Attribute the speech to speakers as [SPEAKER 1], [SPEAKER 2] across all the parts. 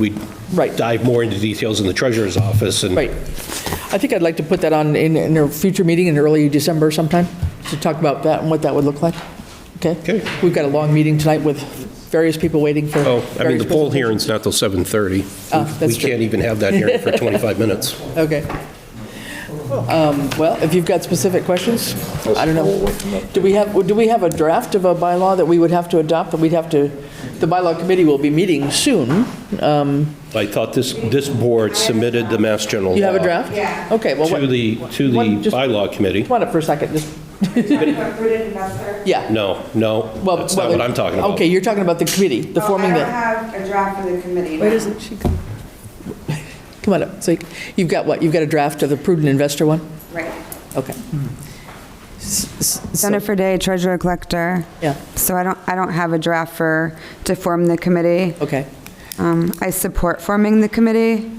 [SPEAKER 1] we
[SPEAKER 2] Right.
[SPEAKER 1] dive more into details in the treasurer's office and.
[SPEAKER 2] Right. I think I'd like to put that on in, in a future meeting in early December sometime, to talk about that and what that would look like. Okay?
[SPEAKER 1] Okay.
[SPEAKER 2] We've got a long meeting tonight with various people waiting for.
[SPEAKER 1] Oh, I mean,
[SPEAKER 2] various
[SPEAKER 1] the poll
[SPEAKER 2] presentations.
[SPEAKER 1] hearing's not till 7:30.
[SPEAKER 2] Oh, that's
[SPEAKER 1] We
[SPEAKER 2] true.
[SPEAKER 1] can't even have that hearing for 25 minutes.
[SPEAKER 2] Okay. Um, Well, if you've got specific questions, I don't know. Do we have, do we have a draft of a bylaw that we would have to adopt, that we'd have to, the bylaw committee will be meeting soon?
[SPEAKER 1] I thought this, this board submitted the Mass General law.
[SPEAKER 2] You have a draft? Yeah. Okay, well,
[SPEAKER 1] To
[SPEAKER 2] what-
[SPEAKER 1] the, to the
[SPEAKER 2] One, just-
[SPEAKER 1] bylaw committee.
[SPEAKER 2] come on up for a second, just,
[SPEAKER 3] Rooted investor.
[SPEAKER 2] yeah.
[SPEAKER 1] No, no,
[SPEAKER 2] Well,
[SPEAKER 1] that's not what I'm talking about.
[SPEAKER 2] Okay, you're talking about the committee, the forming
[SPEAKER 3] I
[SPEAKER 2] that,
[SPEAKER 3] don't have a draft for the committee.
[SPEAKER 2] where does it, she, come Come on up, so you've got what, you've got a draft of the prudent investor one?
[SPEAKER 3] Right.
[SPEAKER 2] Okay. S- s- so-
[SPEAKER 3] Jennifer Day, treasurer collector.
[SPEAKER 2] Yeah,
[SPEAKER 3] So I don't, I don't have a draft for, to form the committee.
[SPEAKER 2] okay.
[SPEAKER 3] Um, I support forming the committee.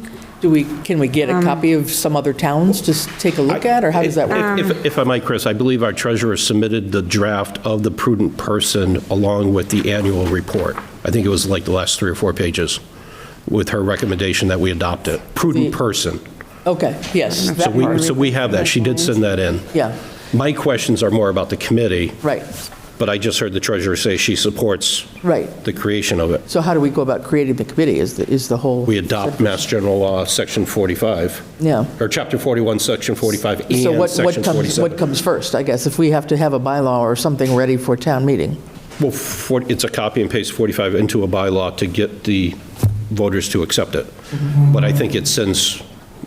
[SPEAKER 2] Do we, can we get a copy of some other towns to s- take a look at, or how does that work?
[SPEAKER 1] If- If if I might, Chris, I believe our treasurer submitted the draft of the prudent person along with the annual report. I think it was like the last three or four pages with her recommendation that we adopt it. Prudent
[SPEAKER 2] The-
[SPEAKER 1] person.
[SPEAKER 2] Okay, yes.
[SPEAKER 1] So
[SPEAKER 2] that
[SPEAKER 1] we,
[SPEAKER 2] part.
[SPEAKER 1] so we have that. She did send that in.
[SPEAKER 2] Yeah,
[SPEAKER 1] My questions are more about the committee,
[SPEAKER 2] right,
[SPEAKER 1] but I just heard the treasurer say she supports
[SPEAKER 2] right.
[SPEAKER 1] the creation of it.
[SPEAKER 2] So how do we go about creating the committee is the, is the whole?
[SPEAKER 1] We adopt Mass General Law, Section 45,
[SPEAKER 2] Yeah.
[SPEAKER 1] or Chapter 41, Section 45, E and
[SPEAKER 2] So what,
[SPEAKER 1] Section
[SPEAKER 2] what comes,
[SPEAKER 1] 47.
[SPEAKER 2] what comes first, I guess, if we have to have a bylaw or something ready for town meeting?
[SPEAKER 1] Well, for- it's a copy and paste 45 into a bylaw to get the voters to accept it. But I think it sends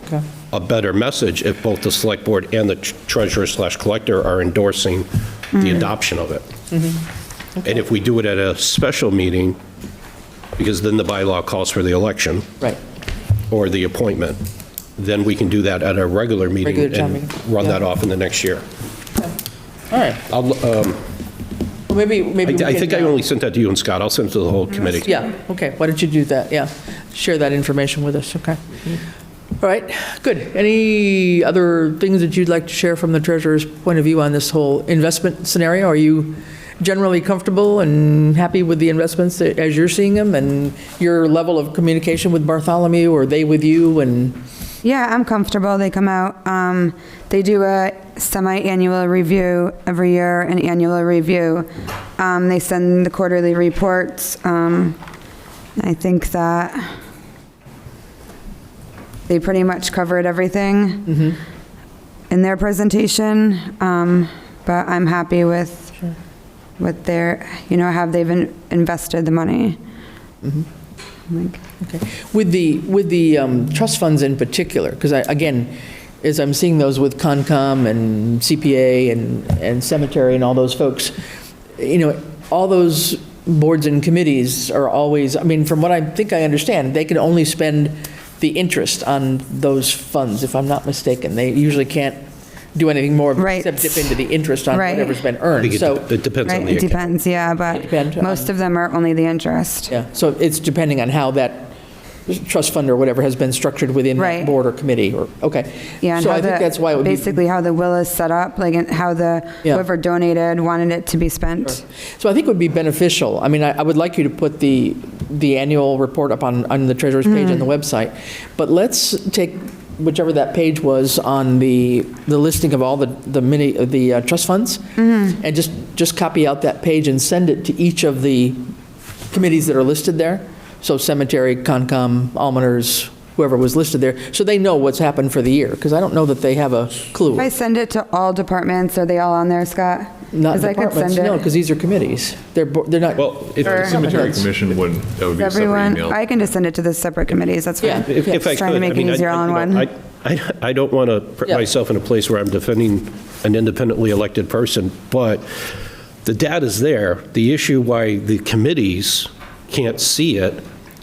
[SPEAKER 2] Okay.
[SPEAKER 1] a better message if both the select board and the treasurer slash collector are endorsing
[SPEAKER 2] Mm-hmm.
[SPEAKER 1] the adoption of it. And if we do it at a special meeting, because then the bylaw calls for the election
[SPEAKER 2] Right,
[SPEAKER 1] or the appointment, then we can do that at a regular meeting
[SPEAKER 2] Regular town
[SPEAKER 1] and
[SPEAKER 2] meeting,
[SPEAKER 1] run
[SPEAKER 2] yeah.
[SPEAKER 1] that off in the next year.
[SPEAKER 2] all right.
[SPEAKER 1] I'll, um,
[SPEAKER 2] Well, Maybe, maybe.
[SPEAKER 1] I
[SPEAKER 2] we
[SPEAKER 1] I
[SPEAKER 2] can,
[SPEAKER 1] think I
[SPEAKER 2] uh,
[SPEAKER 1] only sent that to you and Scott. I'll send it to the whole committee.
[SPEAKER 2] Yeah, okay, why don't you do that, yeah. Share that information with us, okay. All right, good. Any other things that you'd like to share from the treasurer's point of view on this whole investment scenario? Are you generally comfortable and happy with the investments that- as you're seeing them? And your level of communication with Bartholomew, or they with you, and,
[SPEAKER 3] Yeah, I'm comfortable. They come out, um, they do a semi-annual review every year, an annual review. Um, they send the quarterly reports. Um, I think that they pretty much covered
[SPEAKER 2] mm-hmm.
[SPEAKER 3] everything in their presentation. Um, but I'm happy with what their, you know, have they've in- invested the money.
[SPEAKER 2] Mm-hmm.
[SPEAKER 3] Like,
[SPEAKER 2] okay. With the, with the um, trust funds in particular, because I, again, as I'm seeing those with Concom and CPA and, and Cemetery and all those folks, you know, all those boards and committees are always, I mean, from what I think I understand, they can only spend the interest on those funds, if I'm not mistaken. They usually can't do anything more
[SPEAKER 3] Right.
[SPEAKER 2] except dip into the interest on
[SPEAKER 3] Right.
[SPEAKER 2] whatever's been
[SPEAKER 1] I
[SPEAKER 2] earned.
[SPEAKER 1] think
[SPEAKER 2] So.
[SPEAKER 1] it- it depends on
[SPEAKER 3] Right,
[SPEAKER 1] the
[SPEAKER 3] it
[SPEAKER 1] account.
[SPEAKER 3] depends, yeah, but
[SPEAKER 2] Depend on-
[SPEAKER 3] most of them are only the interest.
[SPEAKER 2] Yeah, so it's depending on how that trust fund or whatever has been structured within that
[SPEAKER 3] Right.
[SPEAKER 2] board or committee, or, okay.
[SPEAKER 3] Yeah, and
[SPEAKER 2] So
[SPEAKER 3] how
[SPEAKER 2] I think
[SPEAKER 3] the-
[SPEAKER 2] that's why it would be,
[SPEAKER 3] Basically how the will is set up, like and how the,
[SPEAKER 2] Yeah.
[SPEAKER 3] whoever donated wanted it to be spent.
[SPEAKER 2] so I think it would be beneficial. I mean, I I would like you to put the, the annual report up on, on the treasurer's page
[SPEAKER 3] Hmm.
[SPEAKER 2] on the website, but let's take whichever that page was on the, the listing of all the, the mini, the uh, trust funds,
[SPEAKER 3] Mm-hmm.
[SPEAKER 2] and just, just copy out that page and send it to each of the committees that are listed there, so cemetery, Concom, almoners, whoever was listed there, so they know what's happened for the year, because I don't know that they have a clue.
[SPEAKER 3] If I send it to all departments, are they all on there, Scott?
[SPEAKER 2] Not
[SPEAKER 3] 'Cause I could
[SPEAKER 2] departments,
[SPEAKER 3] send
[SPEAKER 2] no,
[SPEAKER 3] it.
[SPEAKER 2] because these are committees. They're, bo- they're not,
[SPEAKER 1] Well, if,
[SPEAKER 3] Or-
[SPEAKER 4] Cemetery commission wouldn't, that would be a separate
[SPEAKER 3] Everyone,
[SPEAKER 4] email.
[SPEAKER 3] I can just send it to the separate committees, that's
[SPEAKER 2] Yeah.
[SPEAKER 3] fine.
[SPEAKER 1] if if I could.
[SPEAKER 3] Trying to
[SPEAKER 1] I
[SPEAKER 3] make it
[SPEAKER 1] mean, I-
[SPEAKER 3] easier all in
[SPEAKER 1] you know,
[SPEAKER 3] one.
[SPEAKER 1] I, I- I don't want to put
[SPEAKER 2] Yeah.
[SPEAKER 1] myself in a place where I'm defending an independently elected person, but the data's there. The issue why the committees can't see it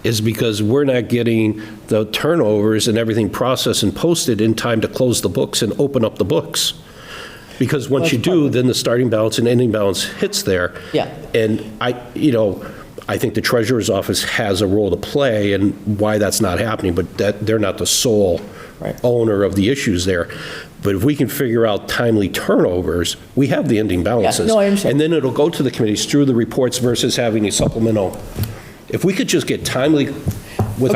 [SPEAKER 1] is because we're not getting the turnovers and everything processed and posted in time to close the books and open up the books. Because once you do, then the starting balance and ending balance hits there.
[SPEAKER 2] Yeah.
[SPEAKER 1] And I, you know, I think the treasurer's office has a role to play in why that's not happening, but that, they're not the sole
[SPEAKER 2] Right.
[SPEAKER 1] owner of the issues there. But if we can figure out timely turnovers, we have the ending balances.
[SPEAKER 2] no, I understand.
[SPEAKER 1] And then it'll go to the committees through the reports versus having a supplemental. If we could just get timely